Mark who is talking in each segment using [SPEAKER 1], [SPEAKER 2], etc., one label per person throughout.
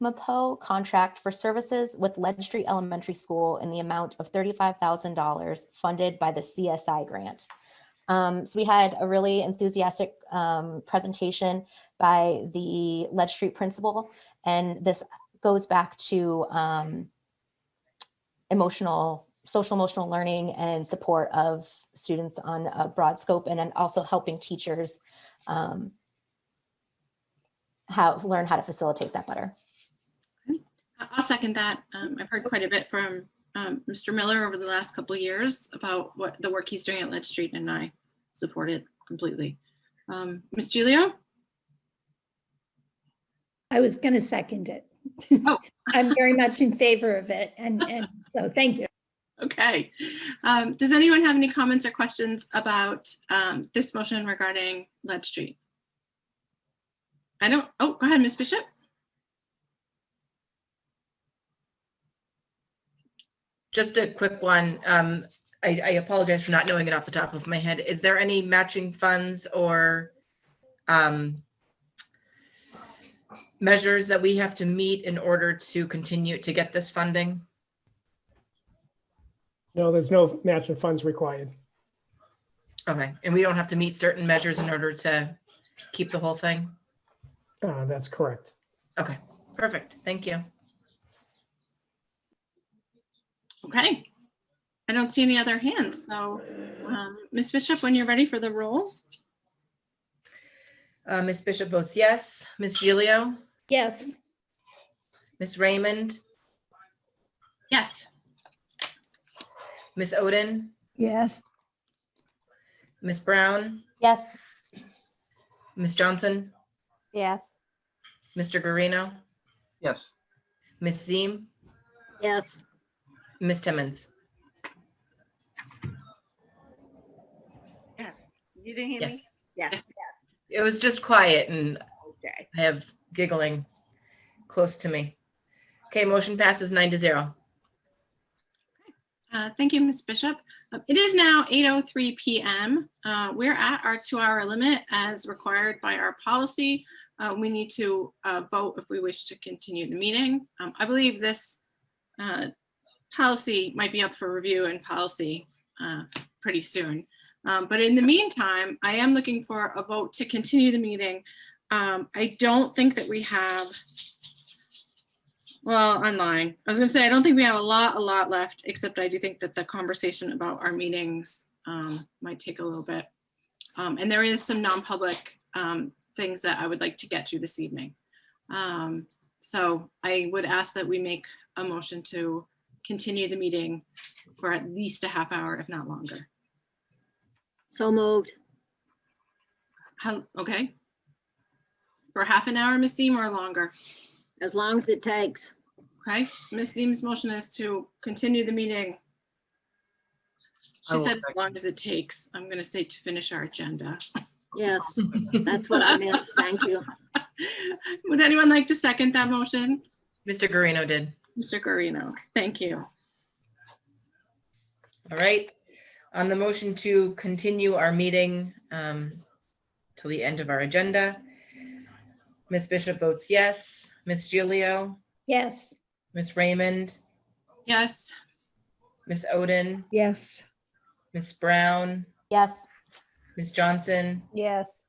[SPEAKER 1] Ramapo contract for services with Lead Street Elementary School in the amount of thirty-five thousand dollars funded by the CSI grant. Um, so we had a really enthusiastic um, presentation by the Lead Street principal, and this goes back to um, emotional, social emotional learning and support of students on a broad scope, and then also helping teachers um, how learn how to facilitate that better.
[SPEAKER 2] I- I'll second that. Um, I've heard quite a bit from um, Mr. Miller over the last couple of years about what the work he's doing at Lead Street, and I support it completely. Um, Ms. Gilio?
[SPEAKER 3] I was going to second it.
[SPEAKER 2] Oh.
[SPEAKER 3] I'm very much in favor of it. And, and so thank you.
[SPEAKER 2] Okay. Um, does anyone have any comments or questions about um, this motion regarding Lead Street? I don't, oh, go ahead, Ms. Bishop.
[SPEAKER 4] Just a quick one. Um, I, I apologize for not knowing it off the top of my head. Is there any matching funds or um, measures that we have to meet in order to continue to get this funding?
[SPEAKER 5] No, there's no match of funds required.
[SPEAKER 4] Okay, and we don't have to meet certain measures in order to keep the whole thing?
[SPEAKER 5] Uh, That's correct.
[SPEAKER 4] Okay, perfect. Thank you.
[SPEAKER 2] Okay. I don't see any other hands, so um, Ms. Bishop, when you're ready for the roll?
[SPEAKER 4] Uh, Ms. Bishop votes yes. Ms. Gilio,
[SPEAKER 3] Yes,
[SPEAKER 4] Ms. Raymond,
[SPEAKER 2] Yes.
[SPEAKER 4] Ms. Oden,
[SPEAKER 6] Yes,
[SPEAKER 4] Ms. Brown,
[SPEAKER 1] Yes.
[SPEAKER 4] Ms. Johnson,
[SPEAKER 1] Yes.
[SPEAKER 4] Mr. Guarino,
[SPEAKER 7] Yes,
[SPEAKER 4] Ms. Ziem.
[SPEAKER 8] Yes,
[SPEAKER 4] Ms. Timmons?
[SPEAKER 9] Yes. You didn't hear
[SPEAKER 4] Yes.
[SPEAKER 9] me? Yeah.
[SPEAKER 4] It was just quiet and
[SPEAKER 9] Okay.
[SPEAKER 4] I have giggling close to me. Okay, motion passes nine to zero.
[SPEAKER 2] Uh, Thank you, Ms. Bishop. Uh, It is now 8:03 PM. Uh, We're at our two-hour limit as required by our policy. Uh, We need to uh, vote if we wish to continue the meeting. Um, I believe this uh, policy might be up for review and policy uh, pretty soon. Um, But in the meantime, I am looking for a vote to continue the meeting. Um, I don't think that we have well, I'm lying. I was gonna say, I don't think we have a lot, a lot left, except I do think that the conversation about our meetings um, might take a little bit. Um, and there is some non-public um, things that I would like to get to this evening. Um, so I would ask that we make a motion to continue the meeting for at least a half hour, if not longer.
[SPEAKER 8] so moved.
[SPEAKER 2] How, okay? For half an hour, Ms. Seem, or longer?
[SPEAKER 8] As long as it takes.
[SPEAKER 2] Okay, Ms. Seem's motion is to continue the meeting.
[SPEAKER 7] I
[SPEAKER 2] She
[SPEAKER 7] will
[SPEAKER 2] said as
[SPEAKER 7] second.
[SPEAKER 2] long as it takes. I'm gonna say to finish our agenda.
[SPEAKER 8] Yes, that's what I meant. Thank you.
[SPEAKER 2] Would anyone like to second that motion?
[SPEAKER 4] Mr. Guarino did.
[SPEAKER 2] Mr. Guarino, thank you.
[SPEAKER 4] All right. On the motion to continue our meeting um, till the end of our agenda, Ms. Bishop votes yes. Ms. Gilio,
[SPEAKER 3] yes.
[SPEAKER 4] Ms. Raymond,
[SPEAKER 2] Yes,
[SPEAKER 4] Ms. Oden,
[SPEAKER 6] yes,
[SPEAKER 4] Ms. Brown,
[SPEAKER 1] Yes.
[SPEAKER 4] Ms. Johnson,
[SPEAKER 6] yes,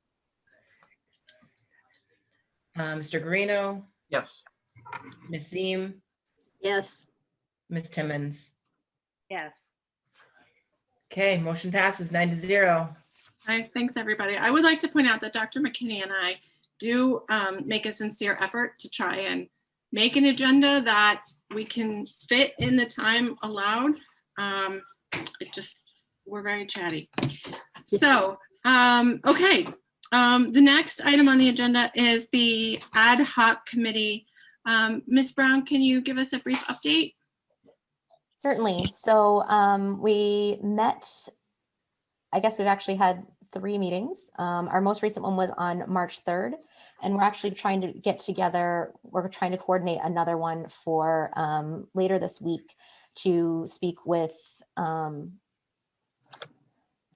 [SPEAKER 4] uh, Mr. Guarino,
[SPEAKER 7] yes,
[SPEAKER 4] Ms. Ziem,
[SPEAKER 8] Yes,
[SPEAKER 4] Ms. Timmons.
[SPEAKER 9] Yes.
[SPEAKER 4] Okay, motion passes nine to zero.
[SPEAKER 2] Hi, thanks, everybody. I would like to point out that Dr. McKinney and I do um, make a sincere effort to try and make an agenda that we can fit in the time allowed. Um, It just, we're very chatty. So, um, okay. Um, The next item on the agenda is the ad hoc committee. Um, Ms. Brown, can you give us a brief update?
[SPEAKER 1] Certainly. So um, we met, I guess we've actually had three meetings. Um, Our most recent one was on March 3rd. And we're actually trying to get together, we're trying to coordinate another one for um, later this week to speak with, um,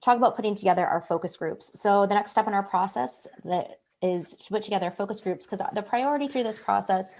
[SPEAKER 1] talk about putting together our focus groups. So the next step in our process that is to put together focus groups because the priority through this process